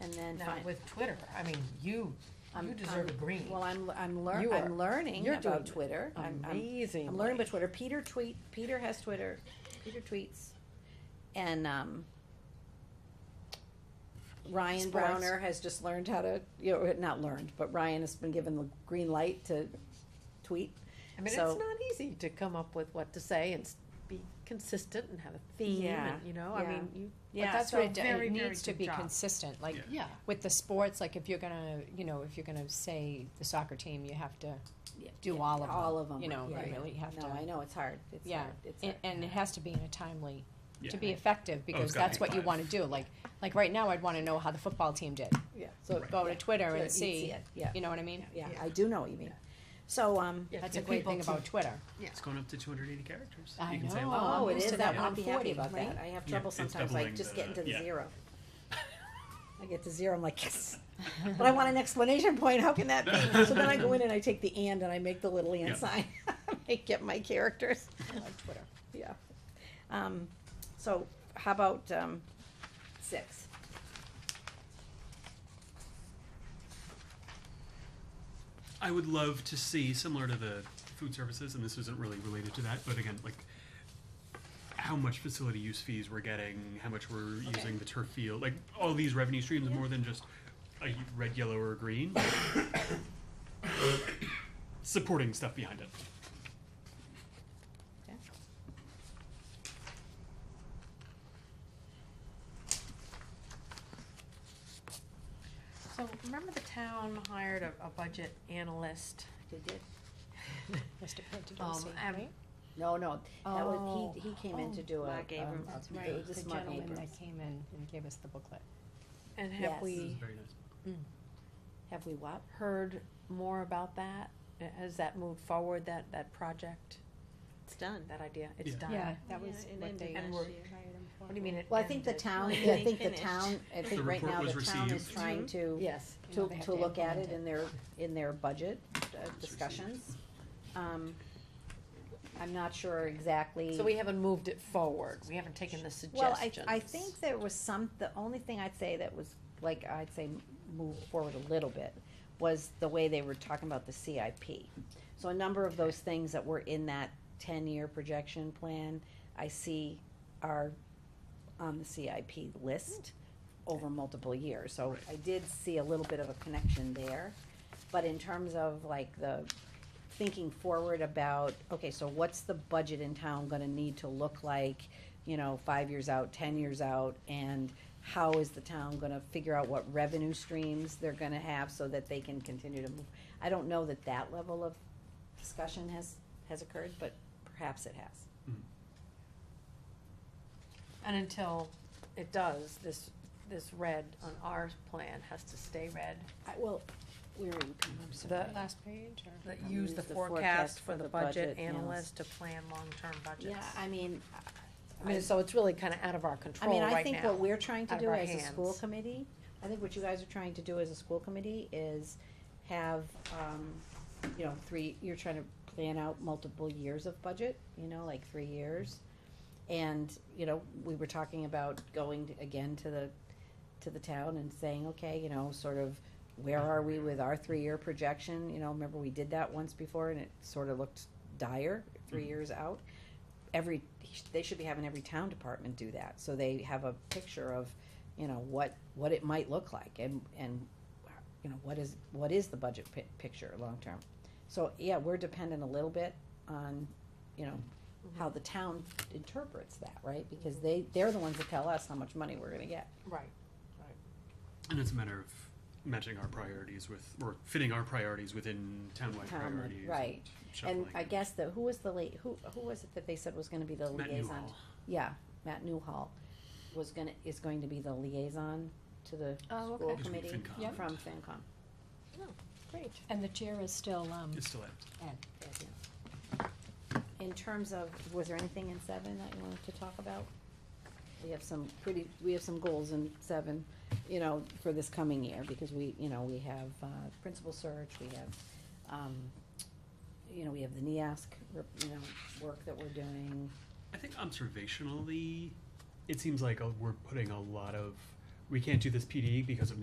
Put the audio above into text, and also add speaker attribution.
Speaker 1: and then
Speaker 2: Now,
Speaker 1: find.
Speaker 2: with Twitter, I mean, you,
Speaker 1: I'm-
Speaker 2: you deserve a
Speaker 1: I'm-
Speaker 2: green.
Speaker 1: Well, I'm, I'm lear-
Speaker 3: You are-
Speaker 1: I'm learning
Speaker 3: you're
Speaker 1: about
Speaker 3: doing
Speaker 1: Twitter. I'm, I'm,
Speaker 3: Amazing.
Speaker 1: I'm learning about Twitter. Peter tweet, Peter has Twitter, Peter tweets. And, um, Ryan
Speaker 3: Sports.
Speaker 1: Browner has just learned how to, you know, not learned, but Ryan has been given the green light to tweet.
Speaker 2: I mean, it's
Speaker 1: so-
Speaker 2: not easy to come up with what to say and s- be consistent and have a theme
Speaker 1: Yeah,
Speaker 2: and, you know, I
Speaker 1: yeah.
Speaker 2: mean, you,
Speaker 4: Yeah,
Speaker 2: that's
Speaker 4: that's what
Speaker 2: a
Speaker 4: it, d-
Speaker 2: very,
Speaker 4: it
Speaker 2: very
Speaker 4: needs to
Speaker 2: good
Speaker 4: be
Speaker 2: job.
Speaker 4: consistent, like
Speaker 5: Yeah.
Speaker 2: yeah.
Speaker 4: with the sports, like if you're gonna, you know, if you're gonna say the soccer team, you have to
Speaker 1: Yeah,
Speaker 4: do
Speaker 1: yeah,
Speaker 4: all of them.
Speaker 1: all of 'em,
Speaker 4: You know, you
Speaker 1: right.
Speaker 4: really have to,
Speaker 1: Oh No, I know, it's hard. It's
Speaker 4: Yeah,
Speaker 1: hard. It's
Speaker 4: and,
Speaker 1: hard.
Speaker 4: and it has to be in a timely, to
Speaker 5: Yeah. Oh,
Speaker 4: be effective, because
Speaker 5: gotta
Speaker 4: that's
Speaker 5: be
Speaker 4: what you
Speaker 5: live.
Speaker 4: wanna do, like, like right now, I'd wanna know how the football team did.
Speaker 1: Yeah.
Speaker 4: So
Speaker 5: Right.
Speaker 4: go to Twitter
Speaker 1: So
Speaker 4: and
Speaker 1: you'd
Speaker 4: see,
Speaker 1: it, Yeah,
Speaker 4: you know what I mean?
Speaker 1: yeah,
Speaker 2: Yeah.
Speaker 1: I do know what you mean. So, um,
Speaker 2: Yeah,
Speaker 4: That's
Speaker 2: for
Speaker 4: a great
Speaker 2: people
Speaker 4: thing
Speaker 2: to-
Speaker 4: about Twitter.
Speaker 5: It's going up to two hundred eighty characters.
Speaker 4: I
Speaker 5: You can say a
Speaker 4: know.
Speaker 5: lot.
Speaker 1: oh,
Speaker 4: I'm
Speaker 1: it
Speaker 4: used
Speaker 1: is
Speaker 4: to
Speaker 1: that,
Speaker 4: that
Speaker 1: one be happy
Speaker 4: 140,
Speaker 1: about that.
Speaker 4: right?
Speaker 1: I have
Speaker 5: Yeah,
Speaker 1: trouble
Speaker 5: it's
Speaker 1: sometimes, like
Speaker 5: doubling
Speaker 1: just
Speaker 5: the-
Speaker 1: getting to the
Speaker 5: yeah.
Speaker 1: zero. I get to zero, I'm like, yes, but I want an explanation point, how can that be? So then I go in and I take the and and I make the little
Speaker 5: Yeah.
Speaker 1: and sign, I get my characters,
Speaker 4: I like Twitter.
Speaker 1: yeah. Um, so how about, um, six?
Speaker 5: I would love to see, similar to the food services, and this isn't really related to that, but again, like how much facility use fees we're getting, how much we're using the turf field, like all these revenue streams, more than just a y- red, yellow, or green. Supporting stuff behind it.
Speaker 2: So remember the town hired a, a budget analyst?
Speaker 1: Did you?
Speaker 4: Mr.
Speaker 2: Um,
Speaker 4: Pantadosi,
Speaker 2: and-
Speaker 4: right?
Speaker 1: No, no, that was,
Speaker 4: Oh,
Speaker 1: he, he came in to
Speaker 4: oh.
Speaker 1: do a.
Speaker 6: Mark Abrams.
Speaker 1: um,
Speaker 4: That's
Speaker 1: a-
Speaker 4: right,
Speaker 1: this
Speaker 4: the
Speaker 1: is Mark
Speaker 4: gentleman
Speaker 1: Abrams.
Speaker 4: that came in and gave us the booklet.
Speaker 2: And
Speaker 1: Yes.
Speaker 2: have we
Speaker 5: Very nice.
Speaker 1: Have we what?
Speaker 2: heard more about that? Uh, Has that moved forward, that, that project,
Speaker 6: It's done.
Speaker 2: that idea? It's
Speaker 5: Yeah.
Speaker 2: done.
Speaker 4: Yeah, that was
Speaker 6: it
Speaker 4: what
Speaker 6: ended
Speaker 4: they.
Speaker 2: And
Speaker 6: last
Speaker 2: we're-
Speaker 6: year.
Speaker 2: What do you mean? it
Speaker 1: Well, I think the
Speaker 2: ended?
Speaker 1: town,
Speaker 6: Like,
Speaker 1: I
Speaker 6: they
Speaker 1: think the
Speaker 6: finished.
Speaker 1: town, I think right
Speaker 5: report
Speaker 1: now
Speaker 5: was
Speaker 1: the town is
Speaker 5: received.
Speaker 1: trying to,
Speaker 2: Yes.
Speaker 4: You know,
Speaker 1: to,
Speaker 4: they have
Speaker 1: to
Speaker 4: to
Speaker 1: look at it
Speaker 4: implement it.
Speaker 1: in their, in their budget uh,
Speaker 5: received.
Speaker 1: discussions. Um, I'm not sure exactly.
Speaker 2: So we haven't moved it forward. We haven't taken the
Speaker 1: Well, I,
Speaker 2: suggestions.
Speaker 1: I think there was some, the only thing I'd say that was, like, I'd say move forward a little bit, was the way they were talking about the CIP. So a number of those things that were in that ten-year projection plan, I see are on the CIP list over multiple years. So I did see a little bit of a connection there. But in terms of like the thinking forward about, okay, so what's the budget in town gonna need to look like, you know, five years out, ten years out? And how is the town gonna figure out what revenue streams they're gonna have so that they can continue to move? I don't know that that level of discussion has, has occurred, but perhaps it has.
Speaker 2: And until it does, this, this red on our plan has to stay red.
Speaker 1: I, well, where are you coming
Speaker 4: So
Speaker 2: The-
Speaker 1: uh,
Speaker 4: the last page or?
Speaker 2: But use the forecast for the budget analyst
Speaker 1: analyst.
Speaker 2: to plan long-term budgets.
Speaker 1: Yeah, I mean,
Speaker 2: I mean, so it's really kind of out of our
Speaker 1: I
Speaker 2: control
Speaker 1: mean, I
Speaker 2: right
Speaker 1: think what
Speaker 2: now.
Speaker 1: we're trying to
Speaker 2: out of
Speaker 1: do
Speaker 2: our
Speaker 1: as a school
Speaker 2: hands.
Speaker 1: committee, I think what you guys are trying to do as a school committee is have, um, you know, three, you're trying to plan out multiple years of budget, you know, like three years. And, you know, we were talking about going to- again to the, to the town and saying, okay, you know, sort of, where are we with our three-year projection? You know, remember we did that once before and it sort of looked dire, three years out. Every, they should be having every town department do that, so they have a picture of, you know, what, what it might look like and, and, you know, what is, what is the budget pi- picture long-term? So, yeah, we're dependent a little bit on, you know, how the town interprets that, right? Because they, they're the ones that tell us how much money we're gonna get.
Speaker 2: Right.
Speaker 5: And it's a matter of matching our priorities with, or fitting our priorities within townwide
Speaker 1: Town,
Speaker 5: priorities.
Speaker 1: right. And
Speaker 5: shuffling
Speaker 1: I
Speaker 5: and-
Speaker 1: guess the, who was the late, who, who was it that they said was gonna be the
Speaker 5: Matt
Speaker 1: liaison?
Speaker 5: Newhall.
Speaker 1: Yeah, Matt Newhall was gonna, is going to be the liaison to the
Speaker 4: Oh,
Speaker 1: school
Speaker 4: okay.
Speaker 5: He's with
Speaker 1: committee
Speaker 5: FinCom.
Speaker 4: Yeah.
Speaker 1: from FinCom.
Speaker 4: Great. And the chair is still, um,
Speaker 5: It's still at.
Speaker 1: In terms of, was there anything in seven that you wanted to talk about? We have some pretty, we have some goals in seven, you know, for this coming year, because we, you know, we have, uh, principal search, we have, um, you know, we have the NEASC, rep- you know, work that we're doing.
Speaker 5: I think observationally, it seems like uh, we're putting a lot of, we can't do this PD because of